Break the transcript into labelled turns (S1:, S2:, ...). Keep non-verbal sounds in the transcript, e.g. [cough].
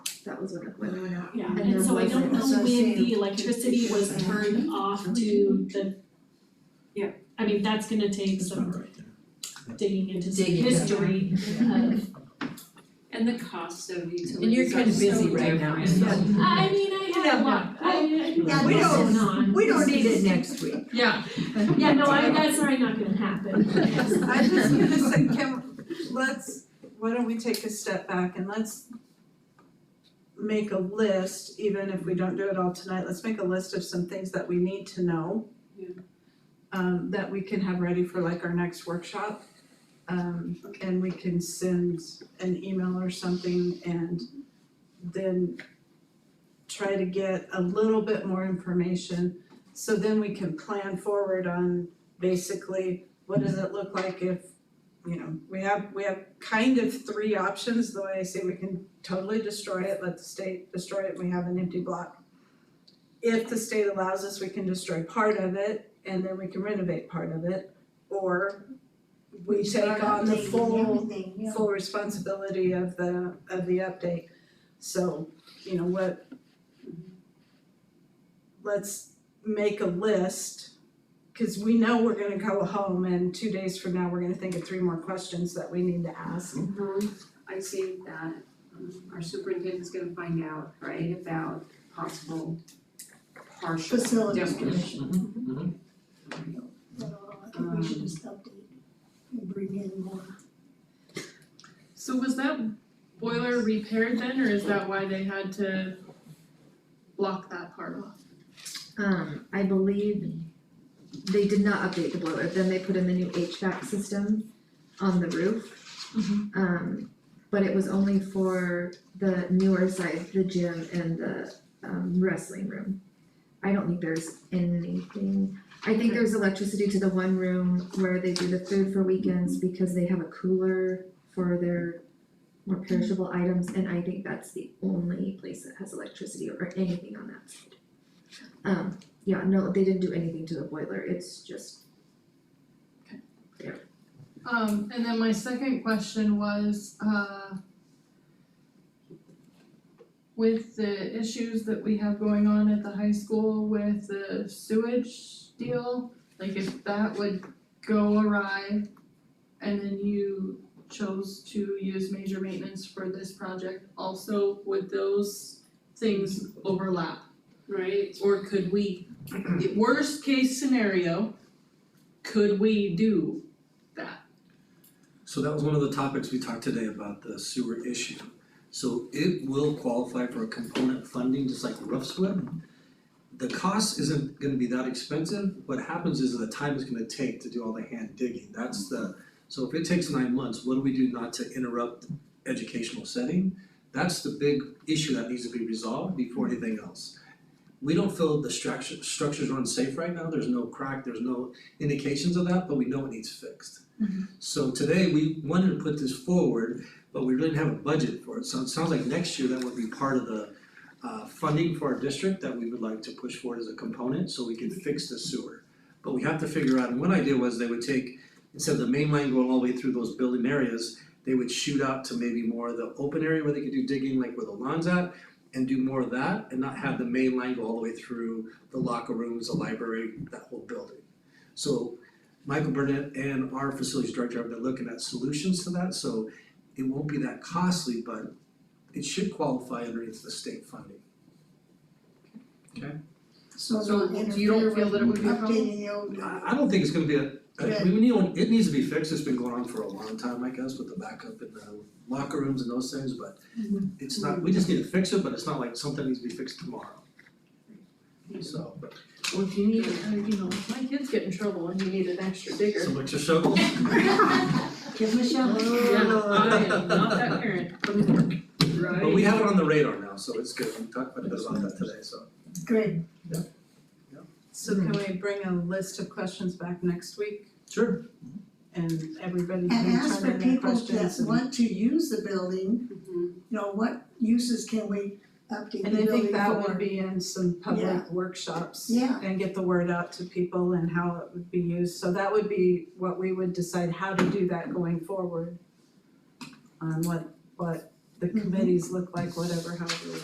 S1: that was when it, when it went out.
S2: Yeah,
S1: And
S2: and
S1: there
S2: so I
S1: was
S2: don't
S1: an
S2: know when the
S1: associated
S2: electricity was
S1: issue.
S2: turned off to the.
S3: Yeah.
S2: I mean, that's gonna take
S4: It's
S2: some
S4: not right there.
S2: digging into some
S5: Digging, yeah.
S2: history of.
S3: And the cost of utilities
S5: And you're kinda
S3: are so
S5: busy right now,
S3: different.
S5: so-
S2: I mean, I had a lot, I I don't know
S1: Yeah,
S5: we
S2: what's
S1: don't-
S2: going on.
S5: We don't need it next week.
S3: Yeah.
S2: Yeah, no, I that's probably not gonna
S6: [laughs]
S2: happen.
S7: [laughs] I just gonna say, can, let's, why don't we take a step back and let's make a list, even if we don't do it all tonight, let's make a list of some things that we need to know.
S3: Yeah.
S7: Um, that we can have ready for like our next workshop. Um, and we can send an email or something and then try to get a little bit more information. So then we can plan forward on basically what does it look like if, you know, we have, we have kind of three options, the way I say we can totally destroy it, let the state destroy it, we have an empty block. If the state allows us, we can destroy part of it and then we can renovate part of it, or we take on the full,
S1: Everything, yeah.
S7: full responsibility of the, of the update. So, you know, what, let's make a list Cause we know we're gonna go home and two days from now, we're gonna think of three more questions that we need to ask.
S3: I see that um, our superintendent's gonna find out, right, about possible partial
S1: Facilities
S3: demolition.
S1: commission.
S4: mhm.
S1: So I think we should just update and bring in more.
S6: So was that boiler repaired then, or is that why they had to block that part off?
S8: Um, I believe they did not update the boiler, then they put in the new HVAC system on the roof. Um, but it was only for the newer side, the gym and the um wrestling room. I don't think there's anything, I think there's electricity to the one room where they do the food for weekends because they have a cooler for their more perishable items, and I think that's the only place that has electricity or anything on that side. Um, yeah, no, they didn't do anything to the boiler, it's just,
S6: Um, and then my second question was, uh, with the issues that we have going on at the high school with the sewage deal, like if that would go awry and then you chose to use major maintenance for this project also, would those things overlap?
S3: Right,
S6: Or could we, worst case scenario, could we do that?
S4: So that was one of the topics we talked today about the sewer issue. So it will qualify for a component funding, just like the roofs would. The cost isn't gonna be that expensive, what happens is the time it's gonna take to do all the hand digging, that's the, so if it takes nine months, what do we do not to interrupt educational setting? That's the big issue that needs to be resolved before anything else. We don't feel the structure, structures are unsafe right now, there's no crack, there's no indications of that, but we know it needs fixed. So today, we wanted to put this forward, but we didn't have a budget for it, so it sounds like next year that would be part of the uh funding for our district that we would like to push forward as a component, so we can fix the sewer. But we have to figure out, and one idea was they would take, instead of the main line going all the way through those building areas, they would shoot out to maybe more of the open area where they could do digging, like where the lawn's at, and do more of that, and not have the main line go all the way through the locker rooms, the library, that whole building. So Michael Burnett and our facilities director have been looking at solutions to that, so it won't be that costly, but it should qualify underneath the state funding.
S1: So
S6: So
S1: not
S6: you don't
S1: interfere
S6: feel that it would be a
S1: with
S6: problem?
S1: updating the old.
S4: I I don't think it's gonna be a, a- we need, one- it needs to be fixed, it's been going on for a long time, I guess, with the backup in the locker rooms and those things, but it's not, we just need to fix it, but it's not like something needs to be fixed tomorrow. So, but
S6: Well, if you need, uh, you know, if my kids get in trouble and you need an extra digger.
S4: some extra shovels?
S1: Give Michelle.
S6: Yeah, I am not that parent,
S4: But we have it on the radar now, so it's good, we talked quite a bit about that today, so.
S1: Good.
S7: So can we bring a list of questions back next week
S4: Sure.
S7: and everybody
S1: And
S7: can
S1: ask for
S7: turn in their
S1: people
S7: questions
S1: that
S7: and-
S1: want to use the building,
S3: mhm,
S1: you know, what uses can we update the
S7: And I
S1: building for?
S7: think that would be in some
S1: Yeah.
S7: public workshops
S1: Yeah.
S7: and get the word out to people and how it would be used. So that would be what we would decide how to do that going forward. On what, what
S1: Mm-hmm.
S7: the committees look like, whatever, however we